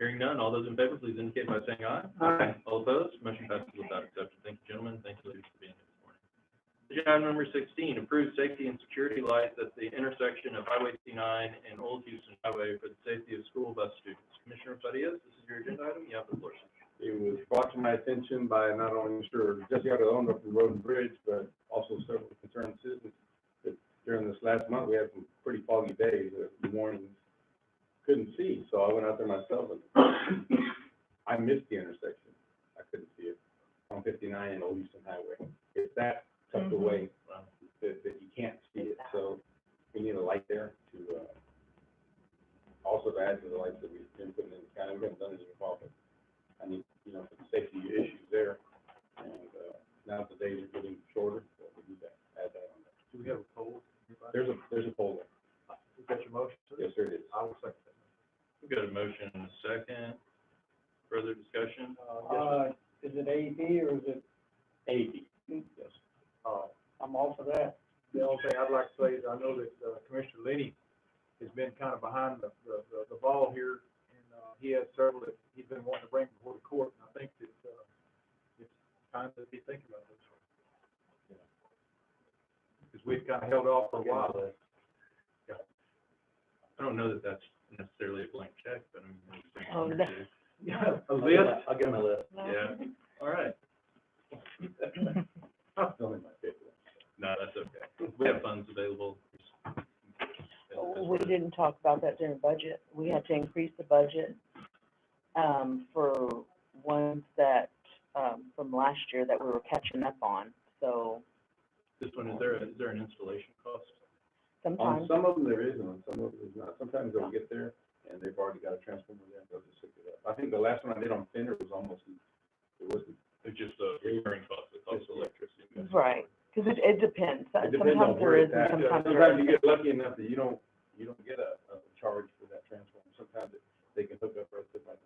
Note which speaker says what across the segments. Speaker 1: Hearing none, all those in favor, please indicate by saying aye.
Speaker 2: Aye.
Speaker 1: All opposed, motion passes without exception. Thank you, gentlemen, thank you, ladies, for being here this morning. Agenda item number sixteen, approve safety and security lights at the intersection of Highway C nine and Old Houston Highway for the safety of school bus students. Commissioner Farias, this is your agenda item, you have the floor. sir.
Speaker 2: It was brought to my attention by not only Mr. Jesse Arredondo from Road and Bridge, but also several concerned citizens that during this last month, we had some pretty foggy days, uh, mornings, couldn't see, so I went out there myself and I missed the intersection. I couldn't see it on fifty-nine and Old Houston Highway. It's that tucked
Speaker 3: Mhm.
Speaker 2: away
Speaker 1: Wow.
Speaker 2: that, that you can't see it, so we need a light there to, uh, also to add to the lights that we've been putting in the county, we haven't done it in a while, but I mean, you know, for the safety issues there. And, uh, now the days are getting shorter, so we need to add that on there.
Speaker 4: Do we have a poll?
Speaker 2: There's a, there's a pole
Speaker 4: Is that your motion?
Speaker 2: there. Yes, there it is.
Speaker 4: I will second
Speaker 1: We've got a motion and a second. Further discussion?
Speaker 5: Uh, is it AEP or is it,
Speaker 2: Eighty. Yes.
Speaker 4: that. Uh,
Speaker 5: I'm all for that.
Speaker 4: the only thing I'd like to say is I know that uh, Commissioner Lenny has been kind of behind the, the, the- the ball here. And, uh, he has several that he's been wanting to bring before the court, and I think that, uh, it's time to be thinking about this. Because we've kind of held off for a while.
Speaker 1: I don't know that that's necessarily a blank check, but I'm. gonna say
Speaker 3: Oh,
Speaker 1: one or
Speaker 3: that-
Speaker 1: two.
Speaker 4: Yeah, a list.
Speaker 2: I'll give him a list.
Speaker 1: Yeah, all right.
Speaker 2: Only my favorite.
Speaker 1: No, that's okay. We have funds available.
Speaker 3: We didn't talk about that during budget. We had to increase the budget, um, for ones that, um, from last year that we were catching up on. So
Speaker 1: This one, is there, is there an installation cost?
Speaker 2: On
Speaker 3: sometimes,
Speaker 2: some of them there is, and on some of them there's not. Sometimes they'll get there and they've already got a transformer there, and they'll just hook it up. I think the last one I did on Fender was almost, it wasn't,
Speaker 1: It's just a recurring cost, the cost of electricity.
Speaker 3: right, because it, it depends.
Speaker 2: it depends on
Speaker 3: Sometimes there
Speaker 2: where
Speaker 3: is
Speaker 2: it's
Speaker 3: and
Speaker 2: at. Sometimes
Speaker 3: sometimes there
Speaker 2: you
Speaker 3: isn't.
Speaker 2: get lucky enough that you don't, you don't get a, a charge for that transformer. Sometimes it- they can hook up right to my,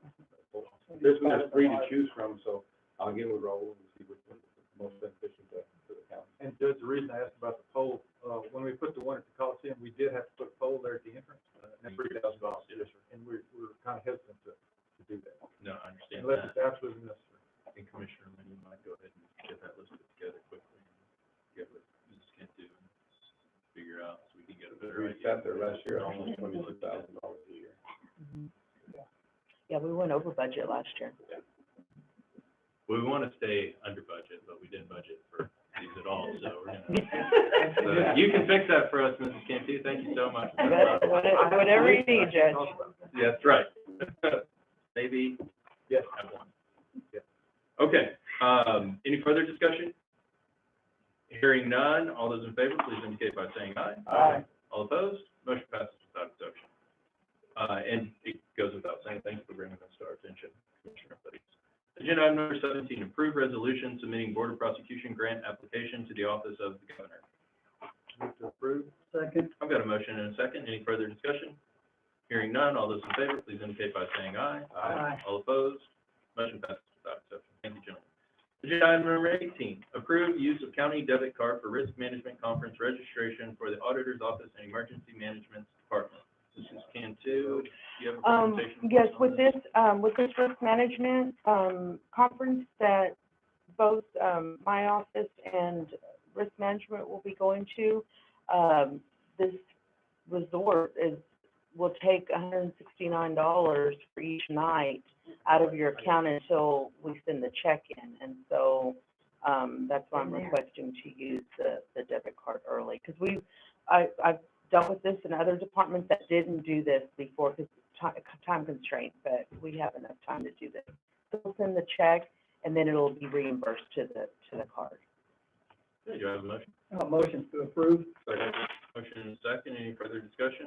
Speaker 2: this one has three to choose from, so I'll give it a roll and see which one's the most efficient to, to the county.
Speaker 4: And Judge, the reason I asked about the poll, uh, when we put the one at the Coliseum, we did have to put a poll there at the entrance, uh, and three thousand dollars, and we, we were kind of hesitant to, to do that,
Speaker 1: No, I understand
Speaker 4: unless
Speaker 1: that.
Speaker 4: it's absolutely necessary.
Speaker 1: I think Commissioner Lenny might go ahead and get that listed together quickly. and Get what Mrs. Kent do and figure out so we can get a better
Speaker 2: We
Speaker 1: idea.
Speaker 2: sat there last year, almost twenty-six thousand dollars a year.
Speaker 3: Mhm. Yeah, we went over budget last year.
Speaker 1: We want to stay under budget, but we didn't budget for these at all, so we're gonna.
Speaker 2: uh,
Speaker 1: So You can fix that for us, Mrs. Cantu. Thank you so much.
Speaker 3: But what- Whatever you need, Judge.
Speaker 1: Yeah, That's right. Maybe.
Speaker 4: Yes.
Speaker 1: Have one.
Speaker 4: Yes.
Speaker 1: Okay, um, any further discussion? Hearing none, all those in favor, please indicate by saying aye.
Speaker 2: Aye.
Speaker 1: All opposed, motion passes without exception. Uh, and it goes without saying, thanks for bringing this to our attention, Commissioner Fuddy. Agenda item number seventeen, approve resolution submitting Board of Prosecution grant application to the Office of the Governor.
Speaker 4: Move to approve.
Speaker 5: Second.
Speaker 1: I've got a motion and a second. Any further discussion? Hearing none, all those in favor, please indicate by saying aye.
Speaker 5: Aye.
Speaker 1: All opposed, motion passes without exception. Thank you, gentlemen. Agenda item number eighteen, approve use of county debit card for risk management conference registration for the auditor's office and emergency management department. This is Cantu. Do you have a
Speaker 3: Um,
Speaker 1: presentation?
Speaker 3: yes,
Speaker 1: on
Speaker 3: with this, um, with this risk management, um, conference that both, um, my office and risk management will be going to, um, this resort is, will take hundred and sixty-nine dollars for each night out of your account until we send the check in. And so, um, that's why I'm
Speaker 5: In there.
Speaker 3: requesting to use the, the debit card early. Because we, I, I've dealt with this in other departments that didn't do this before because time, time constraint, but we have enough time to do this. So We'll send the check and then it'll be reimbursed to the, to the card.
Speaker 1: Do you have a motion?
Speaker 5: Uh, motion to approve.
Speaker 1: Second. Motion and a second. Any further discussion?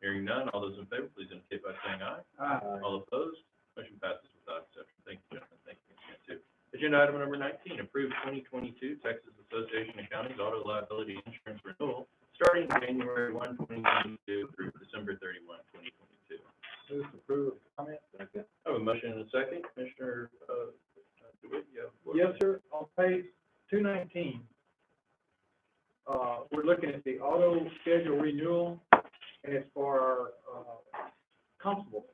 Speaker 1: Hearing none, all those in favor, please indicate by saying aye.
Speaker 2: Aye.
Speaker 1: All opposed? Motion passes without exception. Thank you, gentlemen. Thank you, Ms. Cantu. Agenda item number nineteen, approve twenty twenty-two Texas Association of Counties Auto Liability Insurance Renewal, starting January 1, 2022 through December 31, 2022.
Speaker 4: Move to approve with comment.
Speaker 1: I have a motion and a second. Commissioner, uh, DeWitt, you have the floor.
Speaker 4: Yes, sir, on page two nineteen, uh, we're looking at the auto schedule renewal, and it's for our, uh, constable.